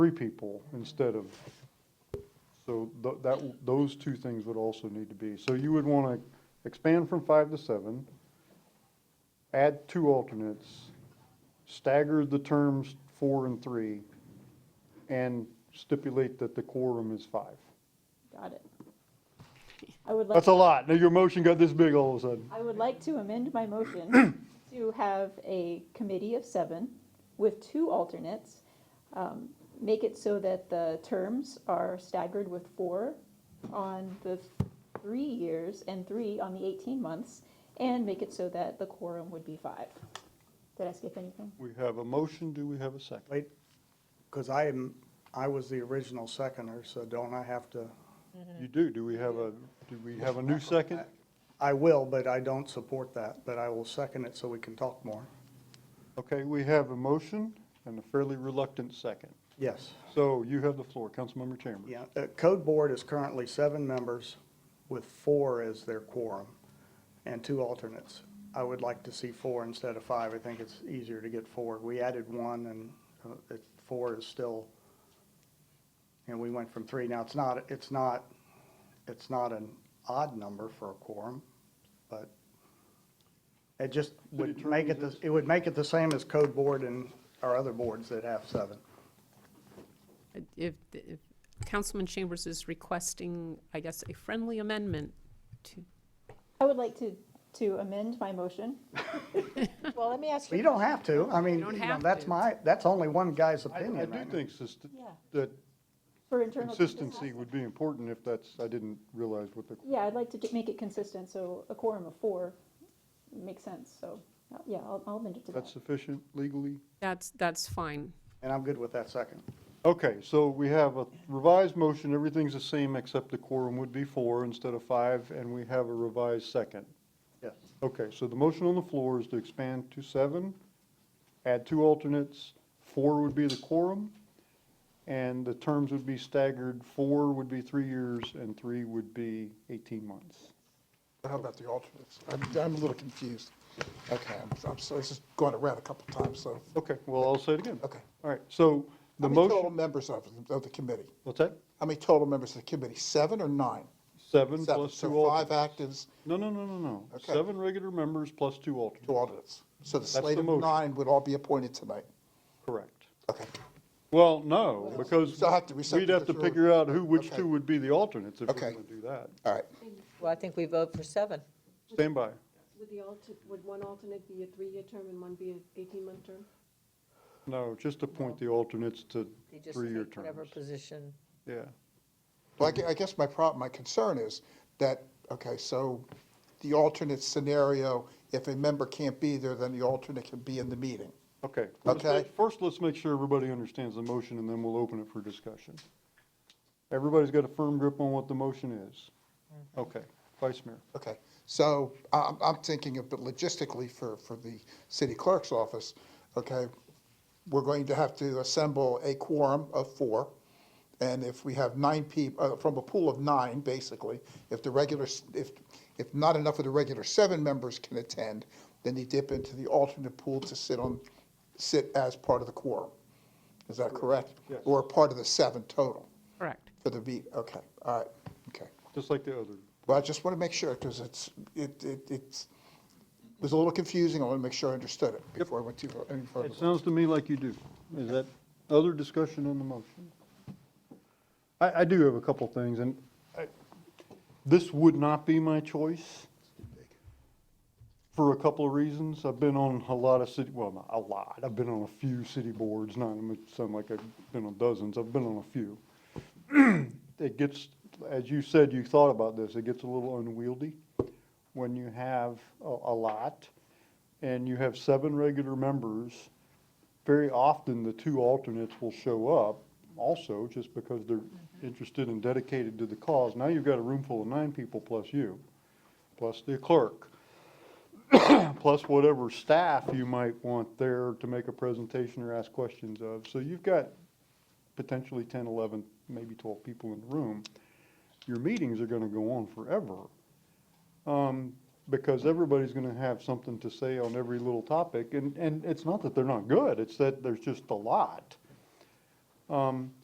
three people instead of, so tho- that, those two things would also need to be. So you would want to expand from five to seven, add two alternates, stagger the terms four and three, and stipulate that the quorum is five. Got it. I would like, That's a lot. Now your motion got this big all of a sudden. I would like to amend my motion to have a committee of seven with two alternates. Um, Make it so that the terms are staggered with four on the three years and three on the 18 months, and make it so that the quorum would be five. Did I skip anything? We have a motion. Do we have a second? Wait, because I am, I was the original seconder, so don't I have to? You do. Do we have a, do we have a new second? I will, but I don't support that, but I will second it so we can talk more. Okay, we have a motion and a fairly reluctant second. Yes. So you have the floor, Councilmember Chambers. Yeah, uh, Code Board is currently seven members with four as their quorum and two alternates. I would like to see four instead of five. I think it's easier to get four. We added one and uh, it- four is still, and we went from three. Now, it's not, it's not, it's not an odd number for a quorum, but it just would City make it, attorney, the- it would make it the same as Code Board and our other boards that have seven. If, if Councilman Chambers is requesting, I guess, a friendly amendment to, I would like to, to amend my motion. Well, let me ask Well, you. You don't have to. I mean, You don't you know, have that's to. my, that's only one guy's I, opinion I right do now. think sist- Yeah. that For internal consistency would be important if that's, I didn't realize what the, Yeah, I'd like to ju- make it consistent, so a quorum of four makes sense, so, uh, yeah, I'll, I'll amend it to that. that's sufficient legally? that's, that's fine. And I'm good with that second. Okay, so we have a revised motion, everything's the same except the quorum would be four instead of five, and we have a revised second. Yes. Okay, so the motion on the floor is to expand to seven, add two alternates, four would be the quorum, and the terms would be staggered, four would be three years, and three would be 18 months. How about the alternates? I'm, I'm a little confused. Okay, I'm, I'm sorry, this is going around a couple times, so. Okay, well, I'll say it again. Okay. All right, so the How many total motion, members of, of the committee? what's that? How many total members of the committee? Seven or nine? Seven Seven, plus two So five alternates. actives, No, no, no, no, no. Okay. Seven regular members plus two two alternates, alternates. So the the slate of motion. nine would all be appointed tonight. correct. Okay, Well, no, because So I have to reset we'd have to the order. figure out who, which Okay. two would be the alternates if we're Okay. going to do that. all right. Well, I think we vote for seven. Stand by. Would the alter, would one alternate be a three-year term and one be an eighteen-month term? No, just appoint the alternates to You just three-year take whatever terms. position. Yeah. Well, I gue- I guess my problem, my concern is that, okay, so the alternate scenario, if a member can't be there, then the alternate can be in the meeting. Okay. Let's Okay. make- First, let's make sure everybody understands the motion, and then we'll open it for discussion. Everybody's got a firm grip on what the motion is. Mm-hmm. Okay. Vice Mayor. Okay, so I'm, I'm thinking of, but logistically for, for the city clerk's office, okay, we're going to have to assemble a quorum of four. And if we have nine people, from a pool of nine, basically, if the regular, s- if, if not enough of the regular seven members can attend, then they dip into the alternate pool to sit on, sit as part of the quorum. Is that correct? Yes. Or part of the seven total Correct. for the meet, okay, all right, okay. Just like the other. Well, I just want to make sure, because it's, it, it, it's, it was a little confusing, I want to make sure I understood it before I went too far, any It further. sounds to me like you do. Is that other discussion on the motion? I, I do have a couple things, and I- this would not be my choice for a couple of reasons. I've been on a lot of city, well, not a lot, I've been on a few city boards, not, it might sound like I've been on dozens, I've been on a few. It gets, as you said, you thought about this, it gets a little unwieldy when you have a, a lot and you have seven regular members, very often the two alternates will show up also just because they're interested and dedicated to the cause. Now you've got a room full of nine people plus you, plus the clerk, plus whatever staff you might want there to make a presentation or ask questions of. So you've got potentially 10, 11, maybe 12 people in the room. Your meetings are going to go on forever. Um, because everybody's gonna have something to say on every little topic, and, and it's not that they're not good, it's that there's just a lot. Um, Um,